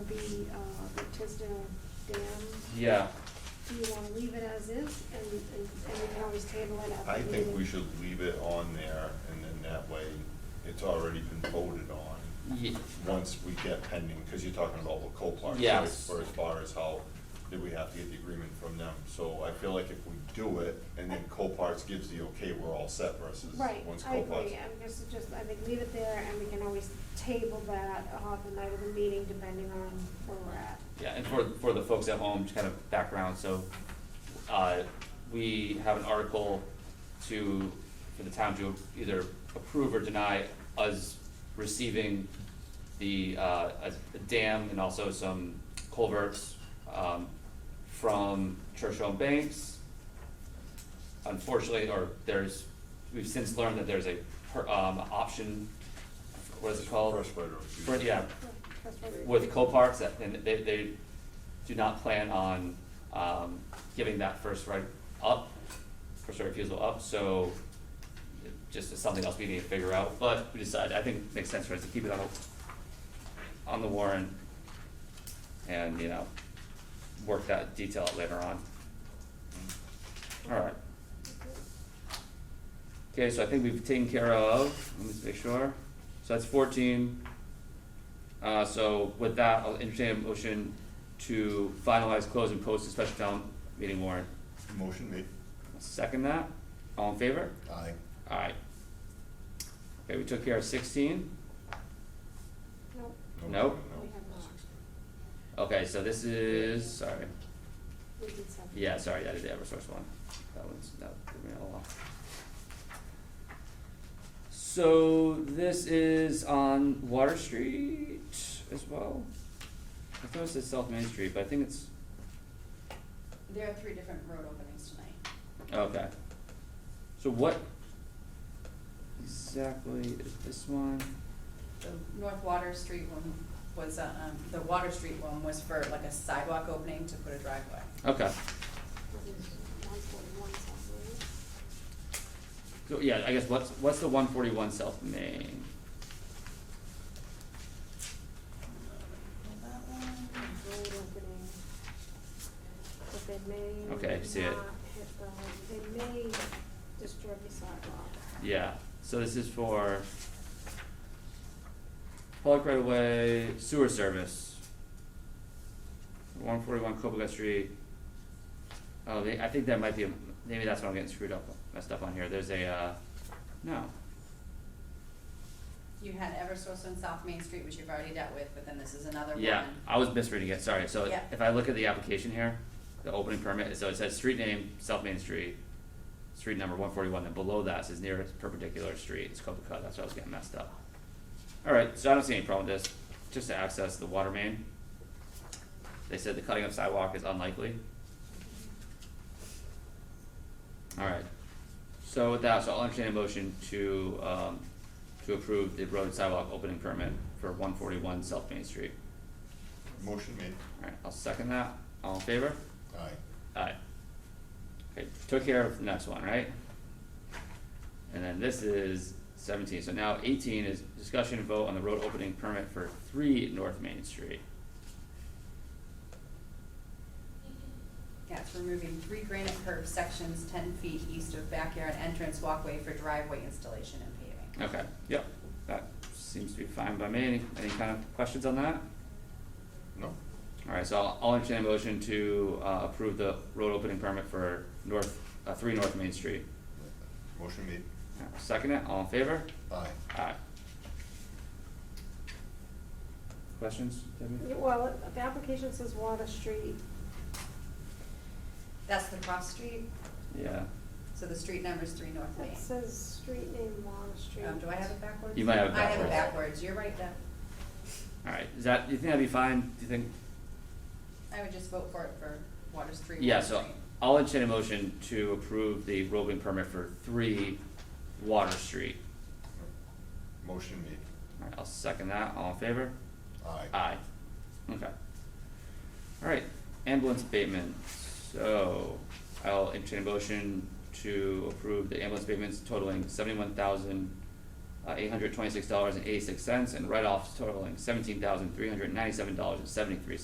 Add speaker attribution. Speaker 1: the, uh, the Tisdale Dam,
Speaker 2: Yeah,
Speaker 1: do you wanna leave it as is, and, and, and we can always table it at the
Speaker 3: I
Speaker 1: meeting?
Speaker 3: think we should leave it on there, and then that way, it's already been voted on,
Speaker 2: ye-
Speaker 3: once we get pending, because you're talking about what Copart
Speaker 2: Yes.
Speaker 3: choice for as far as how, did we have to get the agreement from them? So I feel like if we do it, and then Copart's gives the okay, we're all set versus
Speaker 1: Right,
Speaker 3: once
Speaker 1: I agree,
Speaker 3: Copart's.
Speaker 1: I'm just, just, I think leave it there, and we can always table that on the night of the meeting, depending on where we're at.
Speaker 2: yeah, and for, for the folks at home, just kind of background, so, uh, we have an article to, for the town to either approve or deny us receiving the, uh, a a dam and also some culverts, um, from Churchill and Banks, unfortunately, or there's, we've since learned that there's a, per- um, option, what is it called?
Speaker 3: First right of
Speaker 2: For-
Speaker 3: refusal.
Speaker 2: yeah,
Speaker 1: That's what we-
Speaker 2: with Coparks, that- and they, they do not plan on, um, giving that first right up, first right refusal up, so it just is something else we need to figure out, but we decided, I think it makes sense for us to keep it on, the- on the warrant and, you know, work that detail out later on. Alright. Okay, so I think we've taken care of, let me just make sure, so that's fourteen. Uh, so with that, I'll entertain a motion to finalize, close, and post a special town meeting warrant.
Speaker 3: Motion made.
Speaker 2: Second that, all in favor?
Speaker 3: Aye.
Speaker 2: Alright. Okay, we took care of sixteen,
Speaker 1: Nope.
Speaker 2: Nope.
Speaker 1: We have not.
Speaker 2: okay, so this is, sorry,
Speaker 1: We did seven.
Speaker 2: yeah, sorry, that is the Eversource one, that one's, that threw me all off. So this is on Water Street as well, I thought it said South Main Street, but I think it's,
Speaker 4: There are three different road openings tonight.
Speaker 2: Okay. So what exactly is this one?
Speaker 4: The North Water Street one was, uh, um, the Water Street one was for like a sidewalk opening to put a driveway.
Speaker 2: Okay,
Speaker 1: One forty-one, something.
Speaker 2: so yeah, I guess what's, what's the one forty-one South Main?
Speaker 1: road opening. But they may.
Speaker 2: Okay, I see it.
Speaker 1: not hit the- they may disturb the sidewalk.
Speaker 2: Yeah, so this is for public right of way sewer service. One forty-one Copacabana Street. Oh, they, I think that might be, a- maybe that's what I'm getting screwed up, messed up on here, there's a, uh, no,
Speaker 4: You had Eversource on South Main Street, which you've already dealt with, but then this is another one.
Speaker 2: Yeah, I was misreading it, sorry, so
Speaker 4: Yeah.
Speaker 2: if I look at the application here, the opening permit, so it says street name, South Main Street, street number one forty-one, then below that says nearest perpendicular street, it's Copacut, that's why I was getting messed up. Alright, so I don't see any problem with this, just to access the water main. They said the cutting of sidewalk is unlikely. Alright, so with that, so I'll entertain a motion to, um, to approve the road sidewalk opening permit for one forty-one South Main Street.
Speaker 3: Motion made.
Speaker 2: Alright, I'll second that, all in favor?
Speaker 3: Aye.
Speaker 2: Aye. Okay, took care of the next one, right? And then this is seventeen, so now eighteen is discussion and vote on the road opening permit for three North Main Street.
Speaker 4: Yeah, it's removing three granite curved sections ten feet east of backyard entrance walkway for driveway installation and paving.
Speaker 2: Okay, yep, that seems to be fine by me, any, any kind of questions on that?
Speaker 3: No?
Speaker 2: Alright, so I'll, I'll entertain a motion to, uh, approve the road opening permit for North, uh, three North Main Street.
Speaker 3: Motion made.
Speaker 2: Alright, Second it, all in favor?
Speaker 3: Aye.
Speaker 2: Aye. Questions, Debbie?
Speaker 1: Yeah, Well, it- the application says Water Street,
Speaker 4: That's the cross street,
Speaker 2: Yeah,
Speaker 4: so the street number's three North Main.
Speaker 1: it says street name Water Street.
Speaker 4: Um, do I have it backwards?
Speaker 2: You might have it
Speaker 4: I have
Speaker 2: backwards.
Speaker 4: it backwards, you're right, Deb.
Speaker 2: alright, is that, you think that'd be fine, do you think?
Speaker 4: I would just vote for it for Water Street,
Speaker 2: Yeah,
Speaker 4: Water
Speaker 2: so
Speaker 4: Street.
Speaker 2: I'll entertain a motion to approve the roving permit for three Water Street.
Speaker 3: Motion made.
Speaker 2: Alright, I'll second that, all in favor?
Speaker 3: Aye.
Speaker 2: Aye. Okay. Alright, ambulance abatement, so I'll entertain a motion to approve the ambulance abatements totaling seventy-one thousand uh, eight hundred twenty-six dollars and eighty-six cents and write-offs totaling seventeen thousand three hundred ninety-seven dollars and seventy-three cents.